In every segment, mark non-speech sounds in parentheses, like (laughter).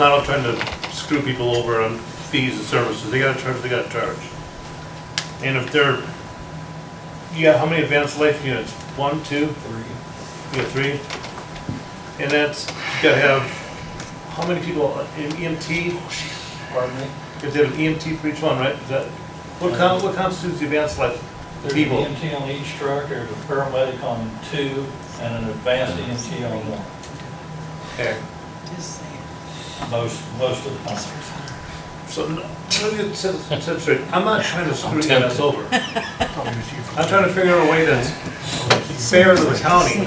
Not all trying to screw people over on fees and services, they gotta charge, they gotta charge. And if they're, yeah, how many advanced life units? One, two? Three. You got three? And that's, you gotta have, how many people, an EMT? Pardon me? If they have an EMT for each one, right? Is that, what con, what constitutes the advanced life? There's an People. EMT E on each truck, there's a paramedic on two, and an advanced EMT on one, Okay. Just saying. most, most of the time. So, no, let me get set, set straight, I'm not trying to screw you guys over. I'm trying to figure out a way that's fair to the county,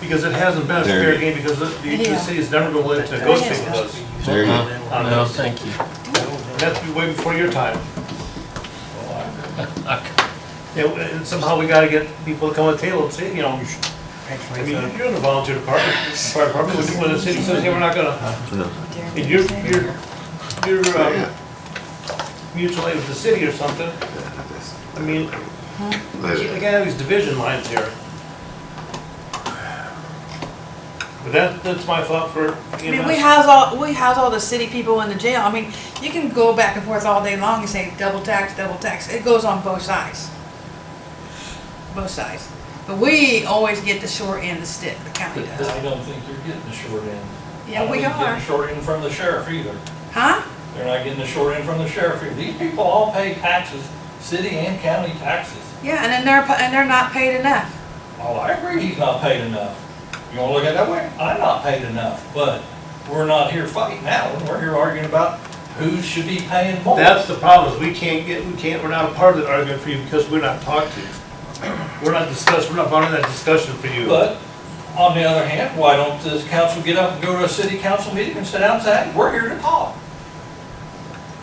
because it hasn't been a fair There. game, because the, the the Yeah. city's never been willing to negotiate with us. There you go. on Uh, No, this. thank you. And that's way before your time. And, and somehow we gotta get people to come to the table and say, you know, I mean, you're in the volunteer department, fire department, when- when the city says, hey, we're not gonna, and you're, you're, you're, um, mutual aid with the city or something, I mean, you Later. gotta have these division lines here. But that, that's my thought for E I mean, we EMS. house all, we house all the city people in the jail. I mean, you can go back and forth all day long and say double tax, double tax. It goes on both sides. Both sides. But we always get the short end of the stick, the county But does. I don't think you're getting the short end. Yeah, we I don't think you're are. getting the short end from the sheriff either. Huh? They're not getting the short end from the sheriff either. These people all pay taxes, city and county taxes. Yeah, and then they're, pa- and they're not paid enough. Oh, I agree he's not paid enough. You wanna look at it that way? I'm not paid enough, but we're not here fighting that one. We're here arguing about who should be paying more. That's the problem, is we can't get, we can't, we're not a part of that argument for you because we're not talked to. We're not discussed, we're not part of that discussion for you. But on the other hand, why don't this council get up and go to a city council meeting and sit down and say, we're here to talk?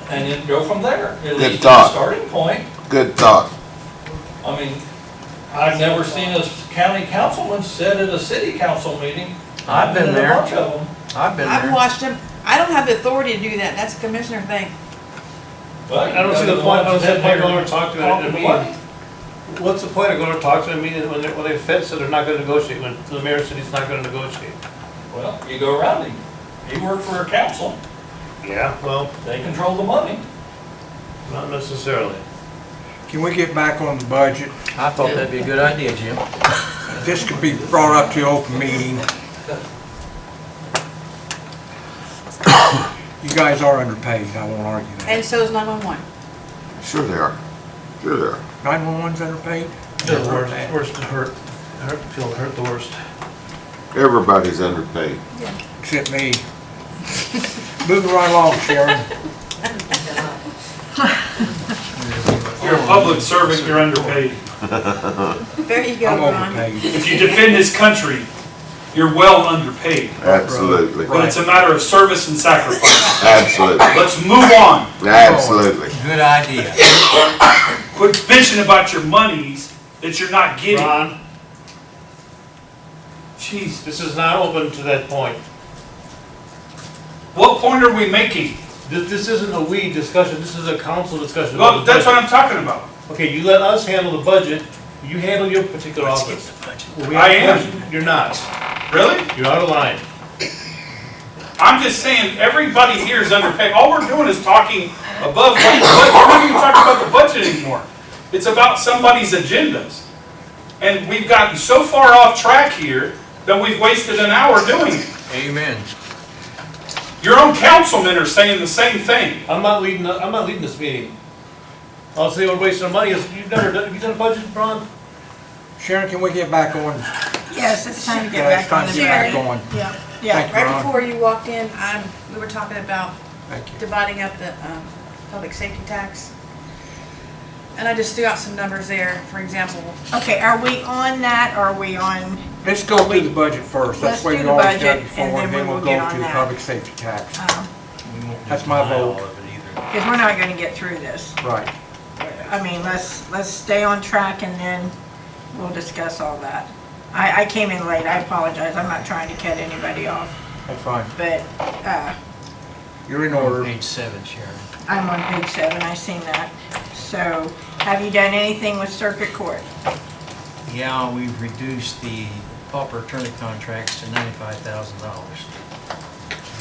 And then go from there. At least it's a thought. Starting point. Good thought. I mean, I've never seen a county councilman sit at a city council meeting. I've been in there. A bunch of them. I've been I've there. watched them. I don't have the authority to do that. That's a commissioner thing. But I don't see you're the point, I don't ones see the that point are going to talk to talking them. money. What's the point of going to talk to them, meaning when they, when they fit, so they're not gonna negotiate, when the mayor said he's not gonna negotiate? Well, you go around him. He worked for a council. Yeah. Well, They control the money. not necessarily. Can we get back on the budget? I thought that'd be a good idea, Jim. This could be brought up to open meeting. You guys are underpaid, I won't argue that. And so is 911. Sure they are. Sure they are. 911's underpaid? The worst, worst to hurt, hurt, feel hurt the worst. Everybody's underpaid. Except me. Move right along, (laughs) Sharon. You're a public servant, you're underpaid. There you go, I'm Ron. overpaid. If you defend this country, you're well underpaid. Absolutely. But it's a matter of service and sacrifice. Absolutely. Let's move on. Absolutely. Good idea. Quit bitching about your monies that you're not getting. Ron, Jeez, this is not open to that point. what point are we making? This, this isn't a we discussion, this is a council discussion. Well, that's what I'm talking about. Okay, you let us handle the budget, you handle your particular office. When we I have am. questions, You're not, Really? you're out of line. I'm just saying, everybody here is underpaid. All we're doing is talking above what, what- we're not even talking about the budget anymore. It's about somebody's agendas. And we've gotten so far off track here that we've wasted an hour doing it. Amen. Your own councilmen are saying the same thing. I'm not leading, the- I'm not leading this meeting. I'll say we're wasting our money, is, you've never done, have you done a budget, Ron? Sharon, can we get back on? Yes, it's time to get Yeah, it's back time on to the get track. back on. Yeah, Thank yeah. you, Right Ron. before you walked in, um, we were talking about Thank you. dividing up the um, public safety tax. And I just threw out some numbers there, for example. Okay, are we on that, or are we on, Let's go through the budget first. That's Let's the way do we the always budget, done and before, and then then we we'll will get go on to that. Uh-huh. public safety tax. because That's my vote. we're not gonna get through this. Right. I mean, let's, let's stay on track and then we'll discuss all that. I, I came in late, I apologize, I'm not trying to cut anybody off, That's fine. but, uh, You're in Order order. page seven, Sharon. I'm on page seven, I seen that. So, have you done anything with circuit court? Yeah, we've reduced the pauper attorney contracts to ninety-five thousand dollars.